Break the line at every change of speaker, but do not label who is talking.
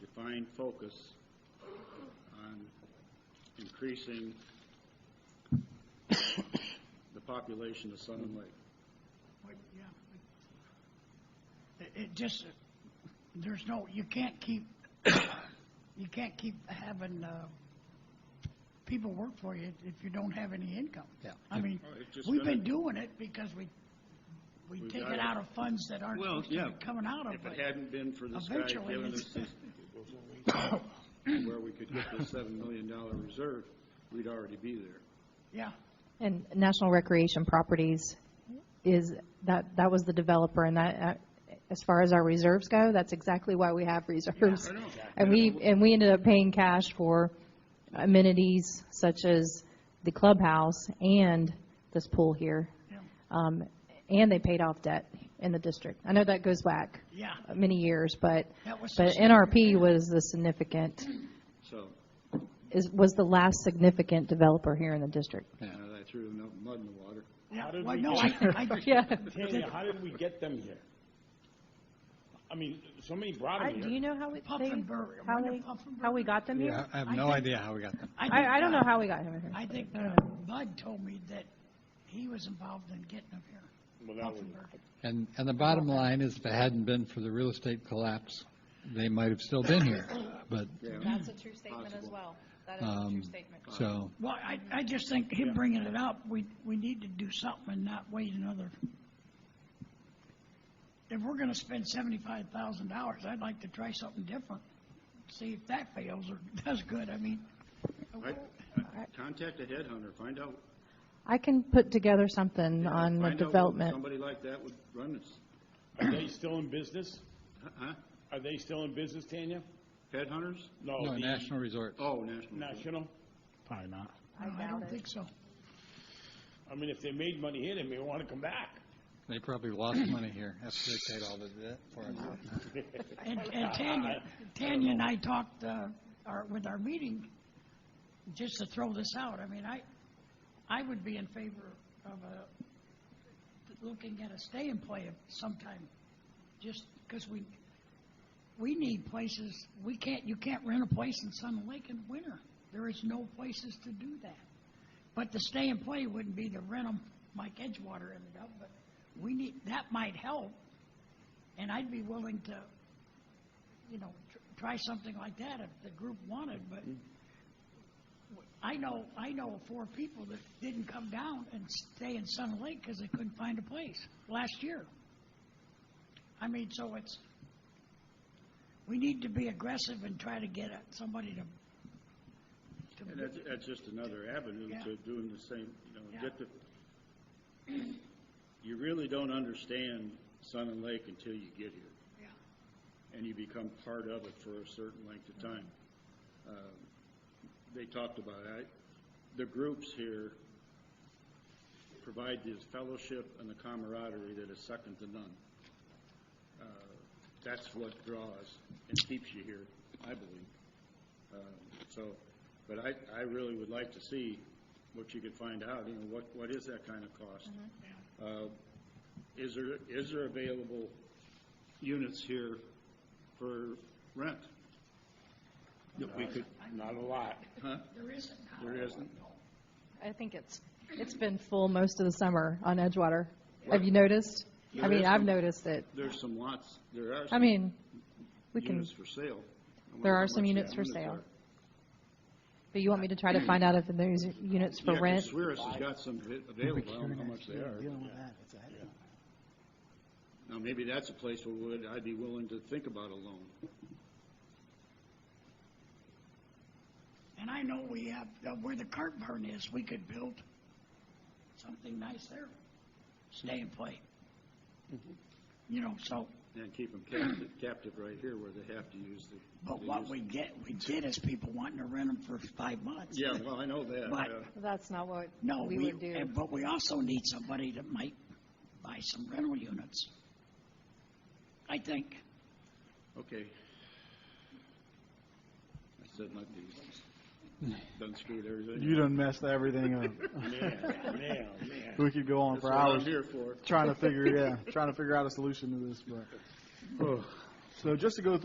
defined focus on increasing the population of Sun and Lake.
Wait, yeah, wait. It, it just, there's no, you can't keep, you can't keep having, uh, people work for you if you don't have any income.
Yeah.
I mean,
Oh, it's just
we've been
gonna-
doing it because we, we
We've
take
got
it
it.
out of funds that aren't
Well,
supposed to
yeah.
be coming out of
If it
it.
hadn't been for this guy
Eventually,
giving us
it's-
this, where we could get this seven million dollar reserve, we'd already be there.
Yeah,
And National Recreation Properties is, that, that was the developer, and that, uh, as far as our reserves go, that's exactly why we have reserves.
I know.
And we, and we ended up paying cash for amenities such as the clubhouse and this pool here.
yeah,
Um, And they paid off debt in the district. I know that goes back
yeah.
many years, but,
That was
but
significant.
NRP was the significant,
So,
is, was the last significant developer here in the district.
now I threw enough mud in the water.
Yeah,
How did
well,
we
no, I,
get-
I,
Yeah.
Tanya, how did we get them here? I mean, somebody brought
I-
them
Do
here.
you know how we, they,
Puffenberg,
how
Linda
they,
Puffenberg.
how we got them
Yeah,
here?
I have
I
no
think-
idea how we got them.
think,
I, I don't
uh,
know how we got him here.
I think uh, Bud told me that he was involved in getting them here.
Well, that was-
Hoffenberg.
And, and the bottom line is, if it hadn't been for the real estate collapse, they might have still been here. But,
That's a true statement as well. That
is a true Um,
statement.
so,
Well, I, I just think him bringing it up, we, we need to do something and not wait another. If we're gonna spend seventy-five thousand dollars, I'd like to try something different. See if that fails or does good, I mean,
I- Contact a headhunter, find out.
I can put together something on the
find out whether
development.
Somebody like that would run this,
Are they still in business?
huh?
Are they still in business, Tanya?
Headhunters?
No.
no,
the
National Resort.
Oh, National.
National?
Probably not.
I don't think so.
I mean, if they made money here, they may want to come back.
They probably lost money here after they paid all the debt for it.
And, and Tanya, Tanya and I talked, uh, our, with our meeting, just to throw this out, I mean, I, I would be in favor of a, looking at a stay and play of sometime, just because we, we need places, we can't, you can't rent a place in Sun Lake in winter. There is no places to do that. But the stay and play wouldn't be to rent them like Edgewater ended up, but we need, that might help. And I'd be willing to, you know, tr- try something like that if the group wanted, but I know, I know of four people that didn't come down and stay in Sun Lake because they couldn't find a place last year. I mean, so it's, we need to be aggressive and try to get a- somebody to,
And
to,
that's, that's just another avenue
Yeah.
to doing the same, you know,
Yeah.
get the, you really don't understand Sun and Lake until you get here.
yeah.
and you become part of it for a certain length of time.
Mm-hmm.
Um, They talked about it. I- The groups here provide this fellowship and the camaraderie that is second to none. Uh, That's what draws and keeps you here, I believe. Um, So, but I, I really would like to see what you could find out, you know, what, what is that kind of cost?
Mm-hmm.
Uh, Is there, is there available units here for rent? That we could,
Not a lot.
huh?
There isn't.
There isn't?
I think it's, it's been full most of the summer on Edgewater. Have you noticed? I
There
mean,
is
I've
some-
noticed it.
There's some lots, there are
I
some
mean, we can,
units for sale. I wonder
there
how
are
much
some
the
units for sale.
are.
But you want me to try to find out if there's units for
Yeah, 'cause
rent?
Swiris has got some av- available, I don't know how much they are. Now, maybe that's a place where would, I'd be willing to think about a loan.
And I know we have, uh, where the cart barn is, we could build something nice there, stay and play. You know, so,
And keep them captive, captive right here where they have to use the.
but
they
what
use-
we get, we get is people wanting to rent them for five months.
Yeah, well, I know that.
But-
yeah.
That's not what
No,
we
we,
would do.
and- but we also need somebody that might buy some rental units. I think,
Okay. I said my piece. Done screwed everything.
You done messed everything up.
Man, man, man.
We could go on
That's
for
what I'm
hours
here for. Oh.
trying to figure, yeah, trying to figure out a solution to this, but. So just to go through